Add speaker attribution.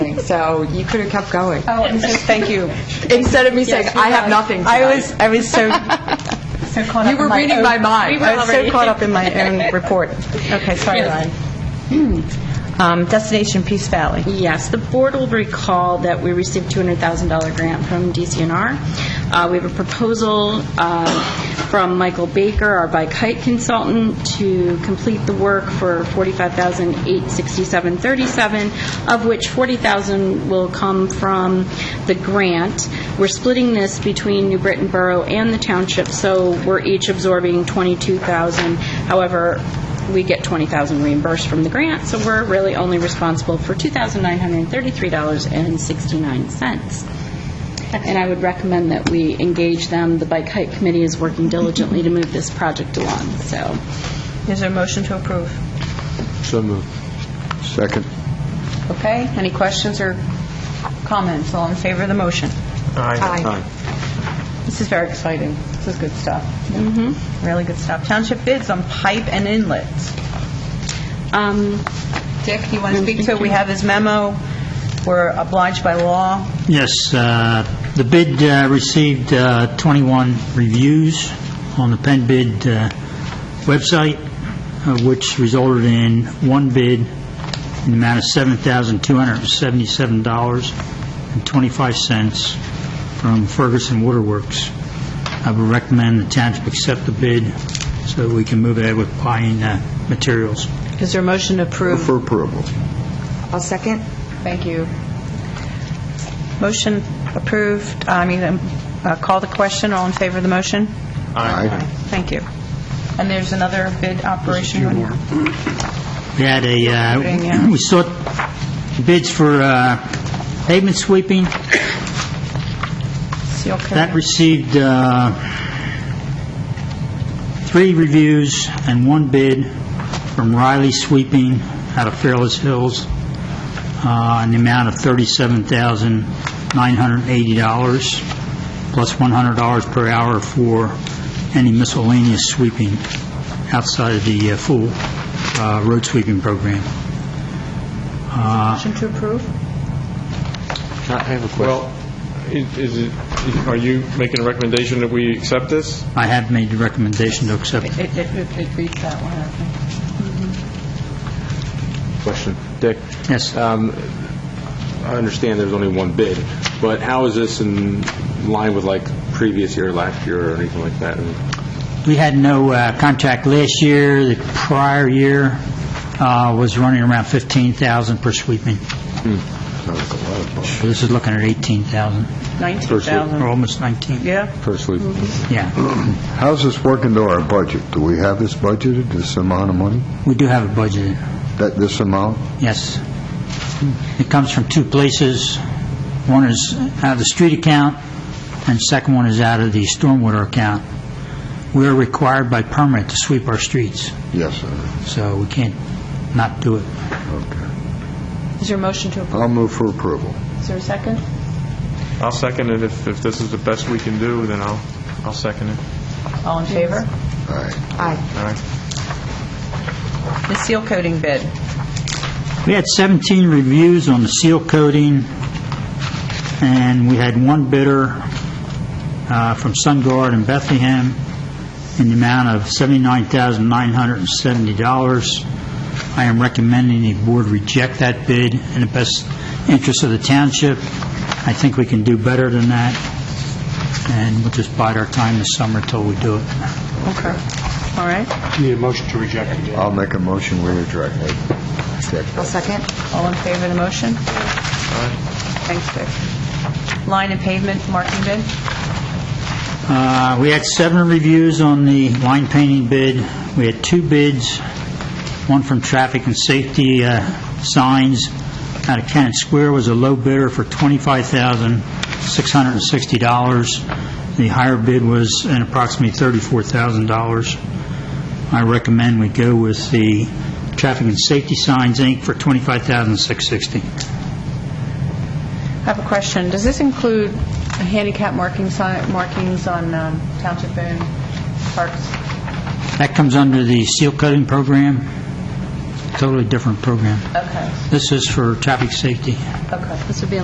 Speaker 1: so you could have kept going.
Speaker 2: Oh, I'm so, thank you.
Speaker 1: Instead of me saying,
Speaker 2: Yes, you're
Speaker 1: I have
Speaker 2: right.
Speaker 1: nothing
Speaker 2: I
Speaker 1: tonight."
Speaker 2: was, I was so, so caught up
Speaker 1: You
Speaker 2: in
Speaker 1: were
Speaker 2: my
Speaker 1: reading
Speaker 2: own-
Speaker 1: my mind.
Speaker 2: We were
Speaker 1: I
Speaker 2: was so caught up in my own report. Okay, sorry, Ryan. Um, Destination Peace Valley.
Speaker 3: Yes, the board will recall that we received $200,000 grant from DCNR. Uh, We have a proposal uh, from Michael Baker, our bike hike consultant, to complete the work for $45,867.37, of which $40,000 will come from the grant. We're splitting this between New Britain Borough and the township, so we're each absorbing $22,000. However, we get $20,000 reimbursed from the grant, so we're really only responsible for $2,933.69. And I would recommend that we engage them. The Bike Hike Committee is working diligently to move this project along, so.
Speaker 2: Is there a motion to approve?
Speaker 4: So moved. Second.
Speaker 2: Okay, any questions or comments? All in favor of the motion?
Speaker 1: Aye.
Speaker 2: This is very exciting. This is good stuff. Mm-hmm. Really good stuff. Township bids on pipe and inlets.
Speaker 3: um,
Speaker 2: Dick, you want to speak to it? We have his memo. We're obliged by law.
Speaker 5: Yes, uh, the bid uh, received uh, 21 reviews on the Penn Bid uh, website, uh, which resulted in one bid in the amount of $7,277.25 from Ferguson Waterworks. I would recommend the township accept the bid so that we can move ahead with buying uh, materials.
Speaker 2: Is there a motion to approve?
Speaker 4: For approval.
Speaker 1: I'll second.
Speaker 2: Thank you. Motion approved, I mean, um, uh, call the question, all in favor of the motion?
Speaker 4: Aye.
Speaker 2: Thank you. And there's another bid operation one here.
Speaker 5: We had a,
Speaker 2: Putting, yeah.
Speaker 5: uh, we sought bids for uh, pavement sweeping.
Speaker 2: Seal
Speaker 5: That
Speaker 2: coating.
Speaker 5: received uh, three reviews and one bid from Riley Sweeping out of Fairless Hills uh, in the amount of $37,980, plus $100 per hour for any miscellaneous sweeping outside of the uh, full uh, road sweeping program.
Speaker 2: Motion to approve?
Speaker 4: I have a
Speaker 6: Well, i- is it, are you making a recommendation that we accept this?
Speaker 5: I have made the recommendation to accept
Speaker 2: It, it, it- it reads that one, I think.
Speaker 6: Question. Dick?
Speaker 5: Yes.
Speaker 6: Um, I understand there's only one bid, but how is this in line with like previous year, last year, or anything like that? And
Speaker 5: We had no uh, contract last year. The prior year uh, was running around 15,000 per sweeping. So This is looking at 18,000,
Speaker 2: 19,000.
Speaker 5: or almost 19.
Speaker 2: Yeah?
Speaker 6: Personally,
Speaker 5: Yeah.
Speaker 4: How's this working to our budget? Do we have this budgeted, this amount of money?
Speaker 5: We do have a budget,
Speaker 4: That, this amount?
Speaker 5: yes. It comes from two places. One is out of the street account, and second one is out of the stormwater account. We are required by permit to sweep our streets,
Speaker 4: Yes, sir.
Speaker 5: so we can't not do it.
Speaker 4: Okay.
Speaker 2: Is there a motion to approve?
Speaker 4: I'll move for approval.
Speaker 2: Is there a second?
Speaker 6: I'll second it. If, if this is the best we can do, then I'll, I'll second it.
Speaker 2: All in favor?
Speaker 4: Aye.
Speaker 1: Aye.
Speaker 6: All right.
Speaker 2: The seal coating bid.
Speaker 5: We had 17 reviews on the seal coating, and we had one bidder uh, from SunGuard in Bethlehem in the amount of $79,970. I am recommending the board reject that bid in the best interest of the township. I think we can do better than that, and we'll just bide our time this summer till we do it.
Speaker 2: Okay. All right.
Speaker 7: Need a motion to reject the bid.
Speaker 4: I'll make a motion, we reject it. Check
Speaker 1: I'll
Speaker 4: that.
Speaker 1: second.
Speaker 2: All in favor of the motion? Thanks, Dick. Line and pavement marking bid?
Speaker 5: Uh, We had seven reviews on the line painting bid. We had two bids, one from Traffic and Safety uh, Signs out of Cannon Square was a low bidder for $25,660. The higher bid was an approximately $34,000. I recommend we go with the Traffic and Safety Signs, Inc. for $25,660.
Speaker 2: I have a question. Does this include handicap markings on markings on um, township-owned parks?
Speaker 5: That comes under the seal coating program. totally different program.
Speaker 2: Okay,
Speaker 5: This is for traffic safety.
Speaker 2: okay.
Speaker 3: This would be